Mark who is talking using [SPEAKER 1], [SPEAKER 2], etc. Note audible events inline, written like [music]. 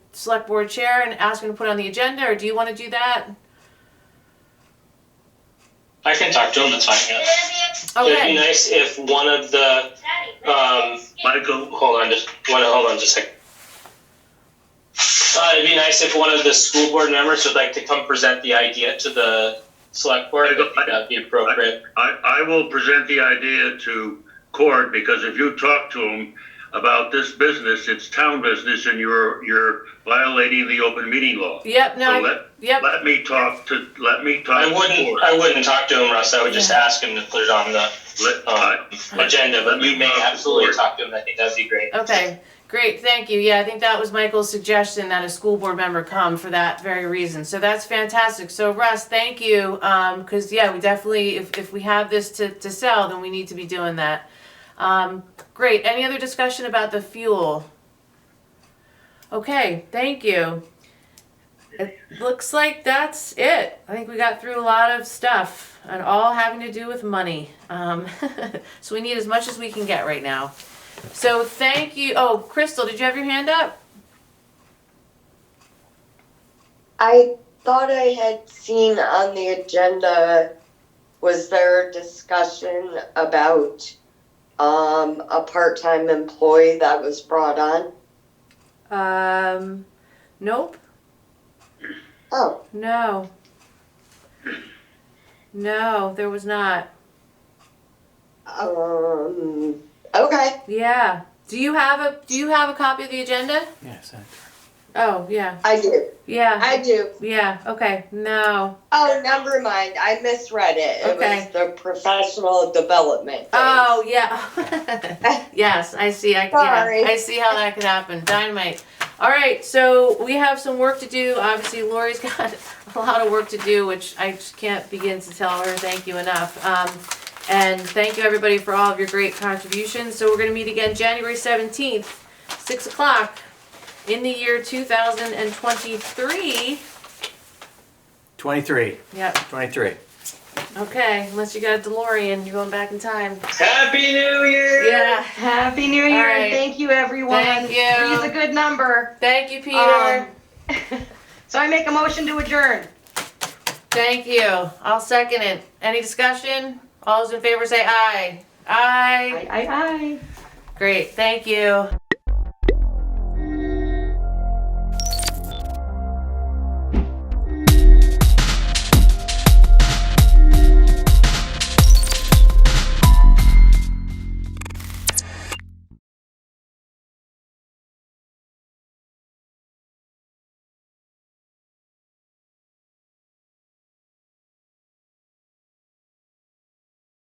[SPEAKER 1] select board chair and ask him to put it on the agenda, or do you want to do that?
[SPEAKER 2] I can talk to him, that's fine, yeah. It'd be
[SPEAKER 1] Okay,
[SPEAKER 2] nice if one of the, um, Michael, hold on, just, one, hold on just a second. Uh, it'd be nice if one of the school board members would like to come present the idea to the select board, I think that'd be appropriate.
[SPEAKER 3] I, I will present the idea to Cord, because if you talk to him about this business, it's town business, and you're, you're violating the open meeting law.
[SPEAKER 1] yep, no,
[SPEAKER 3] So
[SPEAKER 1] I-
[SPEAKER 3] let,
[SPEAKER 1] yep,
[SPEAKER 3] let me talk to, let me talk
[SPEAKER 2] I
[SPEAKER 3] to
[SPEAKER 2] wouldn't,
[SPEAKER 3] Cord.
[SPEAKER 2] I wouldn't talk to him, Russ, I would just
[SPEAKER 1] Yeah.
[SPEAKER 2] ask him to put it on the,
[SPEAKER 3] Let, I,
[SPEAKER 2] um, agenda, but you may absolutely talk to him, I think that'd be great.
[SPEAKER 1] okay, great, thank you. Yeah, I think that was Michael's suggestion that a school board member come for that very reason. So that's fantastic. So Russ, thank you, um, cause yeah, we definitely, if, if we have this to, to sell, then we need to be doing that. Um, great, any other discussion about the fuel? Okay, thank you. It looks like that's it. I think we got through a lot of stuff and all having to do with money. Um, [laughs] so we need as much as we can get right now. So thank you. Oh, Crystal, did you have your hand up?
[SPEAKER 4] I thought I had seen on the agenda, was there a discussion about um, a part-time employee that was brought on?
[SPEAKER 1] Um, nope.
[SPEAKER 4] Oh,
[SPEAKER 1] No. No, there was not.
[SPEAKER 4] um, okay,
[SPEAKER 1] Yeah. Do you have a Do you have a copy of the agenda?
[SPEAKER 5] Yes.
[SPEAKER 1] Oh yeah,
[SPEAKER 4] I do,
[SPEAKER 1] yeah,
[SPEAKER 4] I do.
[SPEAKER 1] yeah. Okay. No.
[SPEAKER 4] Oh, never mind, I misread it. It
[SPEAKER 1] Okay.
[SPEAKER 4] was the professional development. thing.
[SPEAKER 1] Oh
[SPEAKER 6] [laughs]
[SPEAKER 1] yeah. yes, I see. I
[SPEAKER 4] Sorry.
[SPEAKER 1] yeah, I see how that could happen. Dynamite. All right, so we have some work to do. Obviously, Lori's [laughs] got a lot of work to do, which I just can't begin to tell her thank you enough. Um, and thank you everybody for all of your great contributions. So we're gonna meet again January seventeenth, six o'clock, in the year two thousand and twenty-three.
[SPEAKER 5] 23.
[SPEAKER 1] Yep.
[SPEAKER 5] 23.
[SPEAKER 1] Okay. Unless you got a DeLorean, you're going back in time.
[SPEAKER 2] Happy New Year!
[SPEAKER 1] Yeah.
[SPEAKER 6] Happy New Year
[SPEAKER 1] All right.
[SPEAKER 6] and thank you, everyone.
[SPEAKER 1] Thank you.
[SPEAKER 6] Three's a good number. [laughs]
[SPEAKER 1] Thank you, Peter.
[SPEAKER 6] Um, so I make a motion to adjourn.
[SPEAKER 1] Thank you. I'll second it. Any discussion? All those in favor say aye. Aye.
[SPEAKER 6] Aye, aye, aye.
[SPEAKER 1] Great, thank you.